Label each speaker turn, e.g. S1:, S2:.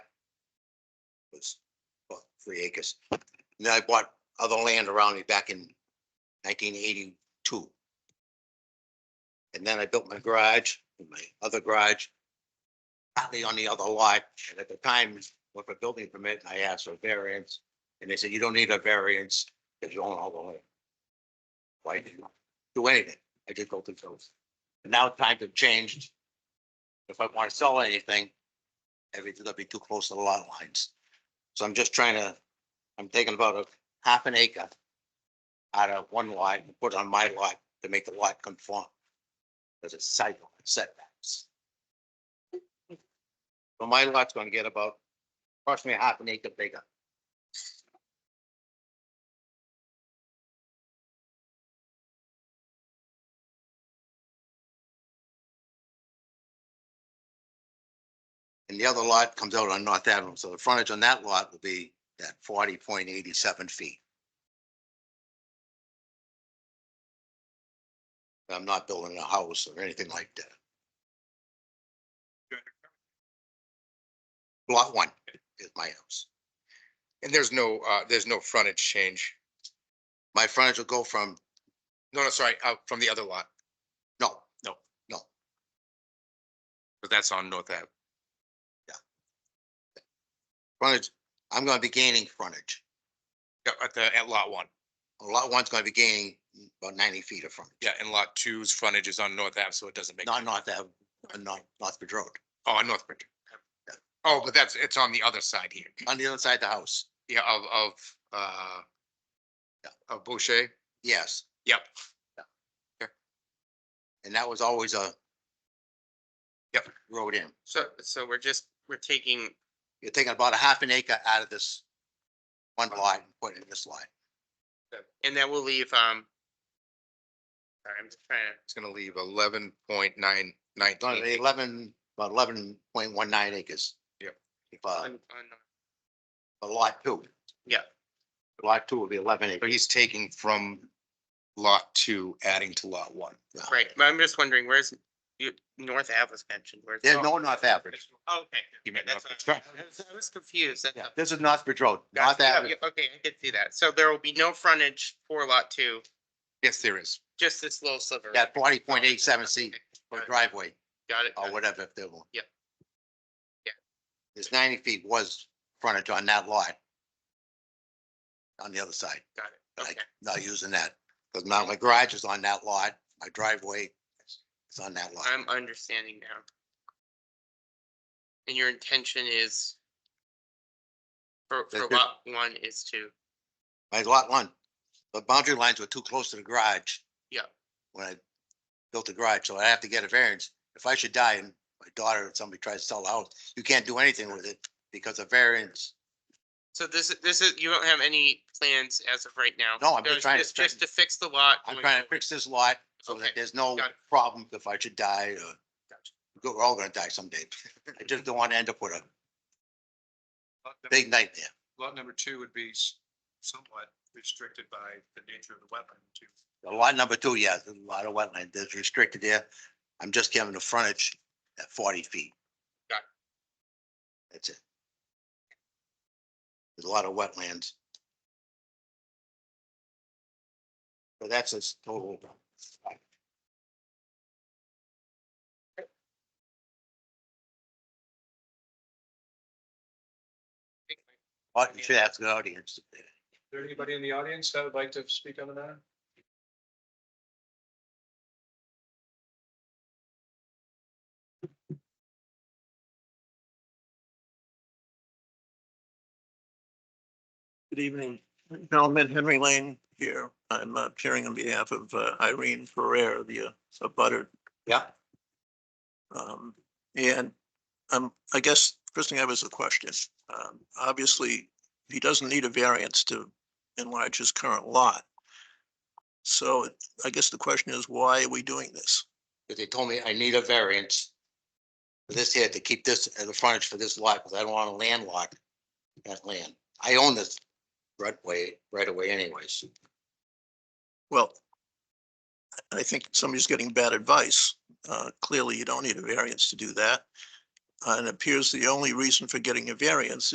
S1: three acres. And then I bought other land around me back in nineteen eighty-two. And then I built my garage, and my other garage, partly on the other lot. And at the time, with a building permit, I asked for variance. And they said, you don't need a variance because you own all the land. Why did you do anything? I just go through those. And Now times have changed. If I want to sell anything, everything's gonna be too close to the lot lines. So I'm just trying to, I'm taking about a half an acre out of one lot and put it on my lot to make the lot conform. Because it's side yard setbacks. So my lot's gonna get about approximately half an acre bigger. And the other lot comes out on North Avenue, so the frontage on that lot will be that forty point eighty-seven feet. I'm not building a house or anything like that. Lot one is my house.
S2: And there's no, uh, there's no frontage change.
S1: My frontage will go from,
S2: No, no, sorry, uh, from the other lot,
S1: no,
S2: but that's on North Ave.
S1: frontage, I'm gonna be gaining frontage.
S2: Yeah, at the, at lot one.
S1: Lot one's gonna be gaining about ninety feet of frontage,
S2: Yeah, and lot two's frontage is on North Ave, so it doesn't make,
S1: not North Ave, not Northbridge Road,
S2: oh, on North Bridge. Oh, but that's, it's on the other side here.
S1: on the other side of the house,
S2: Yeah, of, of, uh, of Boucher.
S1: yes.
S2: Yep.
S1: And that was always a
S2: Yep.
S1: road in.
S3: So, so we're just, we're taking,
S1: You're taking about a half an acre out of this one lot and putting it in this lot.
S3: and then we'll leave, um. Sorry, I'm just trying to,
S2: It's gonna leave eleven point nine nine.
S1: It's only Eleven, about eleven point one nine acres.
S2: Yep.
S1: If, uh,
S3: on, on,
S1: a lot two.
S3: Yeah.
S1: Lot two will be eleven
S2: So
S1: acres.
S2: he's taking from lot two, adding to lot one.
S3: right, but I'm just wondering, where's, you, North Ave was mentioned, where's?
S1: There's no North Avenue.
S3: Oh, Okay.
S2: You meant
S3: Okay, that's
S2: North
S3: what I I was- I was confused. that's
S1: Yeah,
S3: all.
S1: this is Northbridge Road, North
S3: Gotcha. Yeah,
S1: Avenue.
S3: yeah, Okay, I could see that. So there will be no frontage for lot two,
S2: Yes, there is.
S3: just this little sliver.
S1: That forty point eight seven feet for driveway
S2: Oh,
S3: Got it. got
S1: or
S3: it.
S1: whatever if they want.
S3: Yep. Yeah.
S1: This ninety feet was frontage on that lot. On the other side.
S3: Got
S1: it.
S3: Okay.
S1: Not using that, because now my garage is on that lot, my driveway is on that lot.
S3: I'm understanding now. And your intention is for, for
S1: That's good.
S3: lot one is to,
S1: My lot one, the boundary lines were too close to the garage.
S3: Yeah.
S1: When I built the garage, so I have to get a variance. If I should die and my daughter or somebody tries to sell the house, you can't do anything with it because of variance.
S3: so this, is this is, you don't have any plans as of right now?
S1: No, I'm just
S3: There's
S1: trying to
S3: Just to fix the lot.
S1: I'm
S3: going
S1: trying to
S3: forward.
S1: fix this lot so that
S3: Oh, Okay,
S1: there's no
S3: got it.
S1: problem if I should die or Go- we're all gonna die someday. I just don't want to end up with a big nightmare.
S4: lot number two would be s- somewhat restricted by the nature of the wetland too.
S1: A Lot number two, yeah, there's a lot of wetland that's restricted there. I'm just giving the frontage at forty feet.
S3: Got it.
S1: That's it. There's a lot of wetlands. But that's a s- total. Oh, you should ask the audience.
S4: Is there anybody in the audience that would like to speak on the matter?
S5: Good evening, gentlemen. Henry Lane here. I'm uh, appearing on behalf of uh, Irene Ferrer, the uh, abutter.
S1: Yeah.
S5: Um, And um, I guess first thing I have is a question. Um, Obviously, he doesn't need a variance to enlarge his current lot. So I guess the question is, why are we doing this?
S1: But they told me I need a variance. For this here to keep this as a frontage for this lot, because I don't want to landlock that land. I own this right way, right away anyways.
S5: Well, I- I think somebody's getting bad advice. Uh, Clearly, you don't need a variance to do that. Uh, And it appears the only reason for getting a variance